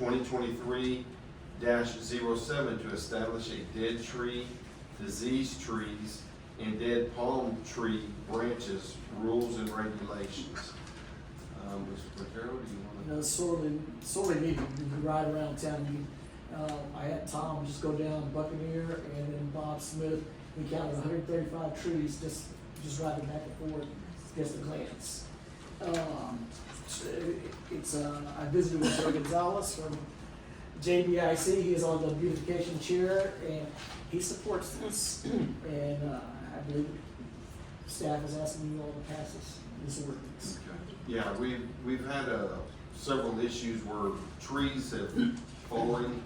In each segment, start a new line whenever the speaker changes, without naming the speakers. twenty twenty-three 7 to establish a dead tree, diseased trees, and dead palm tree branches, rules and regulations. Um, Mr. Vaquero, do you
you know, Uh, sorely, sorely needed. You could ride around town. You, uh, I had Tom just go down Buccaneer and then Bob Smith. We counted 135 trees just just riding back and forth, just a glance. Um, so it- it's uh, I visited with Joe Gonzalez from JBIC. He is on the beautification chair and he supports this. and uh, I believe staff is asking you all to pass this this ordinance.
wanna? Yeah, we've, we've had, uh, several issues where trees have fallen,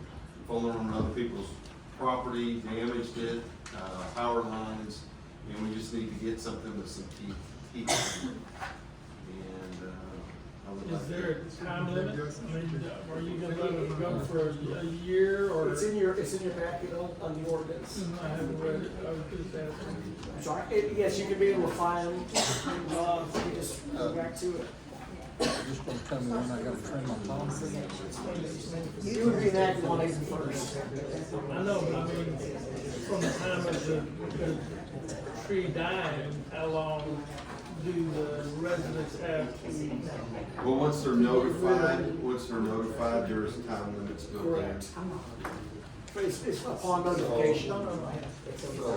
fallen on other people's property, damaged it, uh, power lines, and we just need to get something with some heat, heat. And, uh, I would like.
Is there a time limit? I mean, are you gonna let it go for a- a year or?
It's in your, it's in your packet on, on the ordinance.
I haven't read it, I was just asking.
I'm sorry, it, yes, you can be able to find, uh, you just go back to it.
Just gonna tell me when I gotta trim my palm tree.
You would be enacted on April first.
I know, but I mean, from the time of the, the tree dying, how long do the residents have to?
Well, once they're notified, once they're notified, there is a time limit built in.
Correct. It's, it's upon notification.
So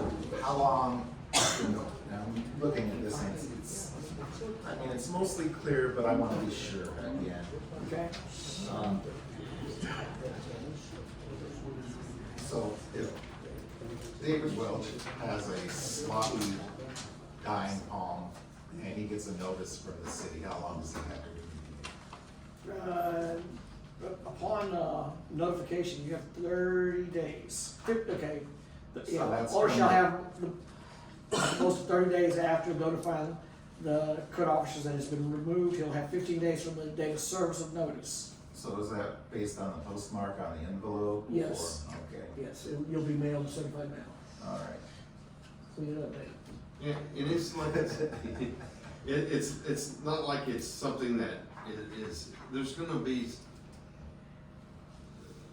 how long, you know, now I'm looking at this and it's, it's, I mean, it's mostly clear, but I wanna be sure at the end.
Okay,
Um, So if David Welch has a sloppy dying palm and he gets a notice from the city, how long does he have to remediate?
uh, upon, uh, notification, you have thirty days, Fif- okay. the-
So
Yeah,
that's
or
from-
shall have the, most thirty days after notifying the code officers that it's been removed, he'll have fifteen days from the date of service of notice.
So is that based on the postmark on the envelope? or-
Yes.
Okay,
Yes, it- you'll be mailed certified mail,
all right.
clean it up, man.
Yeah, it is like, it, it's, it's not like it's something that i- is, there's gonna be s-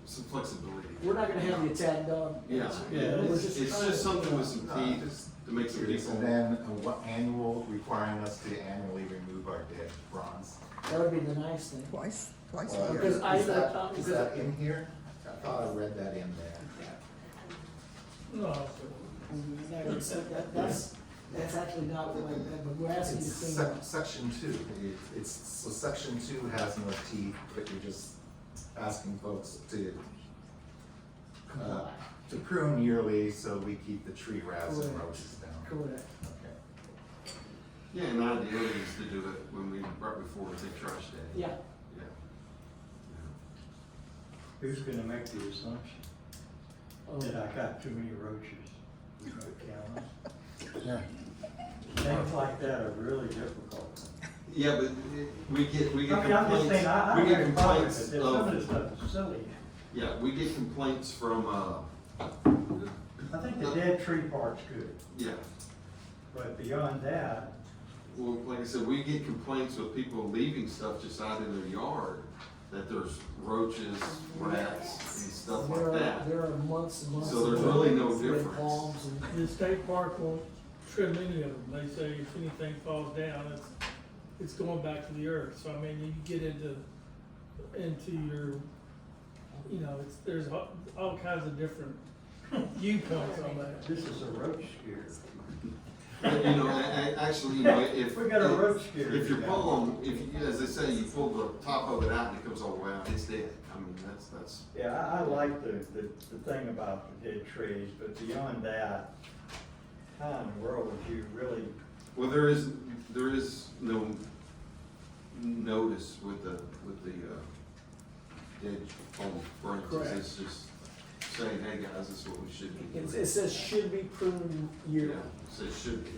some flexibility.
We're not gonna have the attack dog.
Yeah, yeah,
We're
it's,
just
it's
trying to-
just something with
Uh,
some teeth to make some
Curious,
people.
and then uh, what annual, requiring us to annually remove our dead bronze?
That would be the nice thing.
Twice, twice
Uh,
a
Because
year.
Is
I-
that, is that in here? I thought I read that in there.
No,
No, so that- that's, that's actually not what I meant, but we're asking you
It's
to clean
sec-
up.
section two, It- it's, so section two has no teeth, but you're just asking folks to, uh, to prune yearly so we keep the tree rats and
Correct.
roaches down.
Correct.
Okay.
Yeah, and ideally is to do it when we, right before the trash day.
Yeah,
Yeah.
Who's gonna make the assumption
oh,
that I got too many roaches in my
Yeah.
county? Things like that are really difficult.
Yeah, but it- we get, we
I
get
mean, I'm just saying, I,
complaints,
I
we get
have a problem with
complaints
it, some of this
of,
stuff is silly.
yeah, we get complaints from, uh,
I think the dead tree part's good,
yeah.
but beyond that,
Well, like I said, we get complaints with people leaving stuff just out in their yard, that there's roaches, rats, and stuff
there
like
are,
that.
there are months and months.
So there's
of-
really no
with
difference.
Palms and,
the state park won't trim any of them, they say if anything falls down, it's, it's going back to the earth, so I mean, you get into, into your, you know, it's, there's all, all kinds of different viewpoints on that.
this is a roach scare.
But, you know, a- a- actually, you know, if.
We got a roach scare.
If you pull them, if, you- as they say, you pull the top of it out and it comes all the way out, it's dead. I mean, that's, that's,
Yeah, I, I like the, the, the thing about the dead trees, but beyond that, how in the world would you really,
well, there is, there is no notice with the, with the, uh, dead palm branches.
Correct.
It's just saying, hey, guys, this is what we should be doing.
it, it says should be pruned
Yeah,
yearly.
so it should be,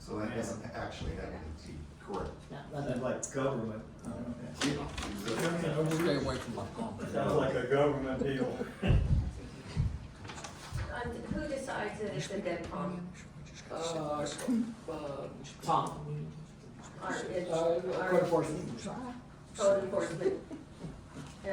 So that doesn't actually have any teeth.
correct.
Yeah,
sounds
that-
like government,
Yeah,
You know, we-
Stay away from my palm tree.
sounds like a government deal.
And who decides that it's a dead palm?
Uh, uh, Tom,
Or is,
uh, code
or
enforcement.
code enforcement?